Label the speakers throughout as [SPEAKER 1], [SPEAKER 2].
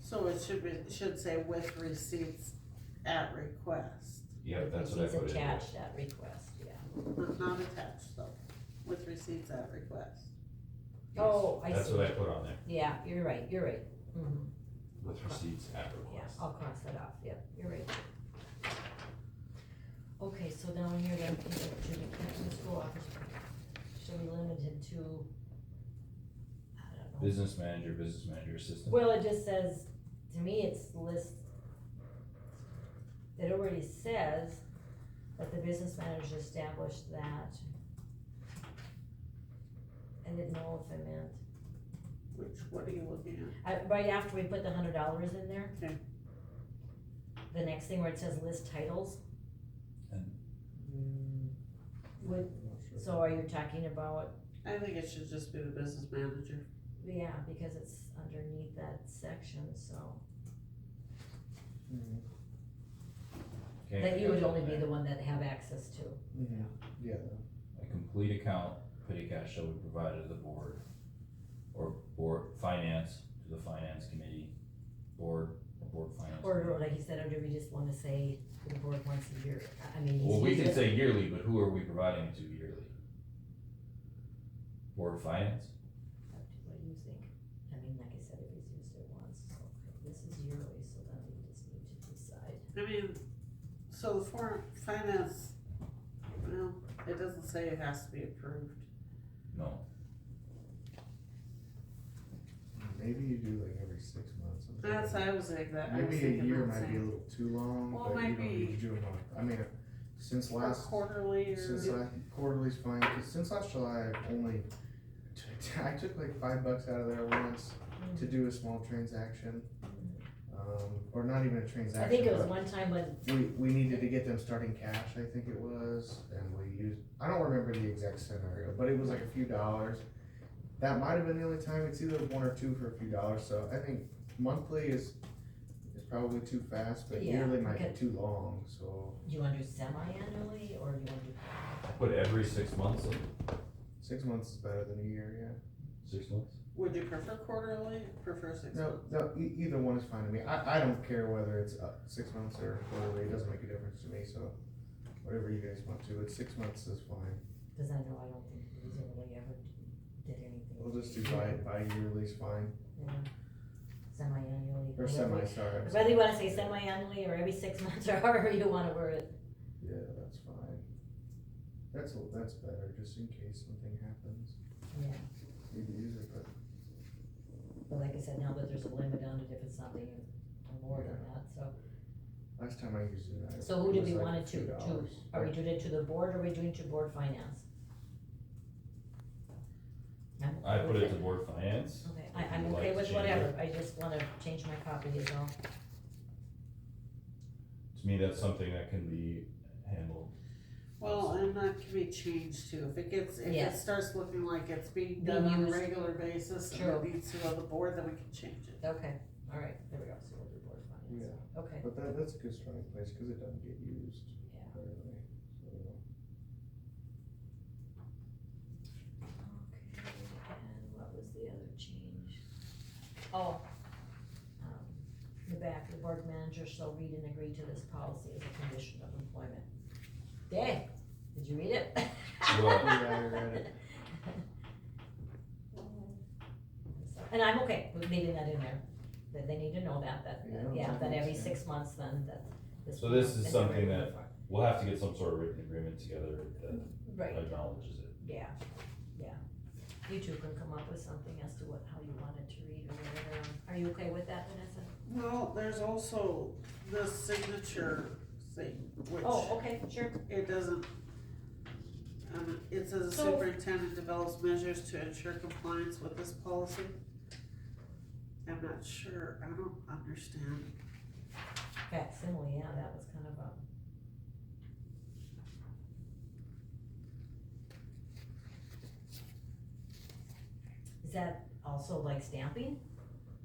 [SPEAKER 1] So it should be, it should say with receipts at request,
[SPEAKER 2] Yeah, that's what I
[SPEAKER 3] It's
[SPEAKER 2] put in there.
[SPEAKER 3] attached at request, yeah.
[SPEAKER 1] but not attached though, with receipts at request.
[SPEAKER 3] Oh, I
[SPEAKER 2] That's
[SPEAKER 3] see,
[SPEAKER 2] what I put on there,
[SPEAKER 3] yeah, you're right, you're right, mhm,
[SPEAKER 2] with receipts at
[SPEAKER 3] yeah,
[SPEAKER 2] request.
[SPEAKER 3] I'll cross that off, yep, you're right. Okay, so down here then, Judy Canton School Office, should be limited to, I don't know.
[SPEAKER 2] Business manager, business manager assistant.
[SPEAKER 3] Well, it just says, to me, it's list, it already says that the business manager established that. I didn't know if I meant,
[SPEAKER 1] Which, what are you looking
[SPEAKER 3] I, right after we put the hundred dollars in there.
[SPEAKER 1] Okay.
[SPEAKER 3] The next thing where it says list titles.
[SPEAKER 2] And-
[SPEAKER 3] Would, so are you talking about,
[SPEAKER 1] at? I think it should just be the business manager.
[SPEAKER 3] yeah, because it's underneath that section, so.
[SPEAKER 4] Mm-hmm.
[SPEAKER 2] Okay,
[SPEAKER 3] That you
[SPEAKER 2] I
[SPEAKER 3] would
[SPEAKER 2] got
[SPEAKER 3] only
[SPEAKER 2] that.
[SPEAKER 3] be the one that have access to.
[SPEAKER 4] Yeah.
[SPEAKER 2] A complete account, petty cash shall be provided to the board, or board, finance, to the finance committee, board, or board finance.
[SPEAKER 3] Or
[SPEAKER 2] committee.
[SPEAKER 3] like you said, or do we just wanna say to the board once a year, I- I mean.
[SPEAKER 2] Well, we
[SPEAKER 3] it's
[SPEAKER 2] can
[SPEAKER 3] just-
[SPEAKER 2] say yearly, but who are we providing to yearly? Board of finance?
[SPEAKER 3] What do you think? I mean, like I said, it was used at once, so this is yearly, so then we just need to decide.
[SPEAKER 1] I mean, so the foreign finance, well, it doesn't say it has to be approved.
[SPEAKER 2] No,
[SPEAKER 4] Maybe you do like every six months. something like
[SPEAKER 1] That's,
[SPEAKER 4] that.
[SPEAKER 1] I was like that, I was
[SPEAKER 4] Maybe a
[SPEAKER 1] thinking
[SPEAKER 4] year
[SPEAKER 1] that
[SPEAKER 4] might be a
[SPEAKER 1] same.
[SPEAKER 4] little too long,
[SPEAKER 1] Well, it
[SPEAKER 4] but you
[SPEAKER 1] might
[SPEAKER 4] don't need
[SPEAKER 1] be-
[SPEAKER 4] to do a month. I mean, since
[SPEAKER 1] Or
[SPEAKER 4] last,
[SPEAKER 1] quarterly
[SPEAKER 4] since
[SPEAKER 1] or,
[SPEAKER 4] last, quarterly's fine, 'cause since last July, I've only, t- I took like five bucks out of there once to
[SPEAKER 1] Mm-hmm.
[SPEAKER 4] do a small transaction. Um, or not even a transaction.
[SPEAKER 3] I think it was
[SPEAKER 4] but-
[SPEAKER 3] one time when,
[SPEAKER 4] We, we needed to get them starting cash, I think it was, and we used, I don't remember the exact scenario, but it was like a few dollars. That might have been the only time, it's either one or two for a few dollars, so I think monthly is, is probably too fast, but
[SPEAKER 3] Yeah,
[SPEAKER 4] yearly might
[SPEAKER 3] okay.
[SPEAKER 4] be too long, so
[SPEAKER 3] do you wanna do semi-annually, or do you wanna do?
[SPEAKER 2] put every six months, in.
[SPEAKER 4] six months is better than a year,
[SPEAKER 2] six months?
[SPEAKER 1] would you prefer quarterly, prefer
[SPEAKER 4] yeah.
[SPEAKER 1] six
[SPEAKER 4] No,
[SPEAKER 1] months?
[SPEAKER 4] no, e- either one is fine to me, I, I don't care whether it's uh, six months or quarterly, it doesn't make a difference to me, so whatever you guys want to, it's six months is fine.
[SPEAKER 3] Cause I know I don't think reasonably ever did anything.
[SPEAKER 4] We'll just do bi, bi-yearly is fine,
[SPEAKER 3] Yeah. Semi-annually.
[SPEAKER 4] or
[SPEAKER 3] whatever.
[SPEAKER 4] semi, sorry. I'm
[SPEAKER 3] Whether you wanna say
[SPEAKER 4] sorry.
[SPEAKER 3] semi-annually, or every six months, or however you wanna word it.
[SPEAKER 4] Yeah, that's fine. That's, a- that's better, just in case something happens,
[SPEAKER 3] Yeah.
[SPEAKER 4] you can use it, but
[SPEAKER 3] But like I said, now that there's a limit on it, if it's something more than that, so.
[SPEAKER 4] last time I used it, I.
[SPEAKER 3] So who do
[SPEAKER 4] it was
[SPEAKER 3] we
[SPEAKER 4] like
[SPEAKER 3] want it
[SPEAKER 4] a
[SPEAKER 3] to,
[SPEAKER 4] few
[SPEAKER 3] to,
[SPEAKER 4] dollars.
[SPEAKER 3] are we doing it to the board, or are we doing it to board finance? I'm
[SPEAKER 2] I
[SPEAKER 3] okay
[SPEAKER 2] put
[SPEAKER 3] with
[SPEAKER 2] it to board finance.
[SPEAKER 3] Okay, I,
[SPEAKER 2] If
[SPEAKER 3] I'm
[SPEAKER 2] you'd like
[SPEAKER 3] okay
[SPEAKER 2] to
[SPEAKER 3] with
[SPEAKER 2] change it.
[SPEAKER 3] whatever, I just wanna change my copy as well.
[SPEAKER 2] To me, that's something that can be handled.
[SPEAKER 1] Well, and that can be changed too, if it gets, if
[SPEAKER 3] Yeah.
[SPEAKER 1] it starts looking like it's being
[SPEAKER 3] Being
[SPEAKER 1] done on a
[SPEAKER 3] used.
[SPEAKER 1] regular basis and
[SPEAKER 3] True.
[SPEAKER 1] it needs to go to the board, then we can change it.
[SPEAKER 3] Okay, all right, there we go, so we'll do board finance,
[SPEAKER 4] Yeah,
[SPEAKER 3] okay,
[SPEAKER 4] but that, that's a good starting place, cause it doesn't get used
[SPEAKER 3] yeah,
[SPEAKER 4] rarely, so.
[SPEAKER 3] okay, and what was the other change? Oh, um, the back, the board manager shall read and agree to this policy as a condition of employment. Dang, did you read it?
[SPEAKER 2] Well-
[SPEAKER 4] Yeah, I read it.
[SPEAKER 3] And I'm okay with leaving that in there, that they need to know that, that,
[SPEAKER 4] Yeah,
[SPEAKER 3] yeah, that every
[SPEAKER 4] yeah.
[SPEAKER 3] six months then, that.
[SPEAKER 2] So this is
[SPEAKER 3] and every
[SPEAKER 2] something
[SPEAKER 3] year
[SPEAKER 2] that-
[SPEAKER 3] before.
[SPEAKER 2] We'll have to get some sort of written agreement together that
[SPEAKER 3] Right,
[SPEAKER 2] acknowledges it.
[SPEAKER 3] yeah, yeah. You two can come up with something as to what, how you want it to read or whatever, um, are you okay with that, Vanessa?
[SPEAKER 1] Well, there's also the signature thing, which.
[SPEAKER 3] Oh, okay, sure,
[SPEAKER 1] It doesn't. Um, it says the
[SPEAKER 3] So-
[SPEAKER 1] superintendent develops measures to ensure compliance with this policy. I'm not sure, I don't understand.
[SPEAKER 3] facsimile, yeah, that was kind of a. Is that also like stamping?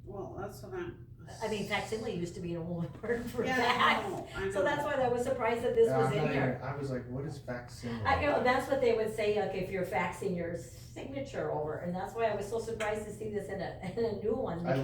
[SPEAKER 1] Well, that's what I'm.
[SPEAKER 3] I mean, facsimile used to be an old word for
[SPEAKER 1] Yeah, I
[SPEAKER 3] fax.
[SPEAKER 1] know, I know.
[SPEAKER 3] So that's why I was surprised that this
[SPEAKER 4] Yeah,
[SPEAKER 3] was
[SPEAKER 4] I'm
[SPEAKER 3] in
[SPEAKER 4] not
[SPEAKER 3] here.
[SPEAKER 4] even- uh, I was like, what is facsimile?
[SPEAKER 3] I know, that's what they would say, like, if you're faxing your signature over, and that's why I was so surprised to see this in a, in a new one.
[SPEAKER 4] I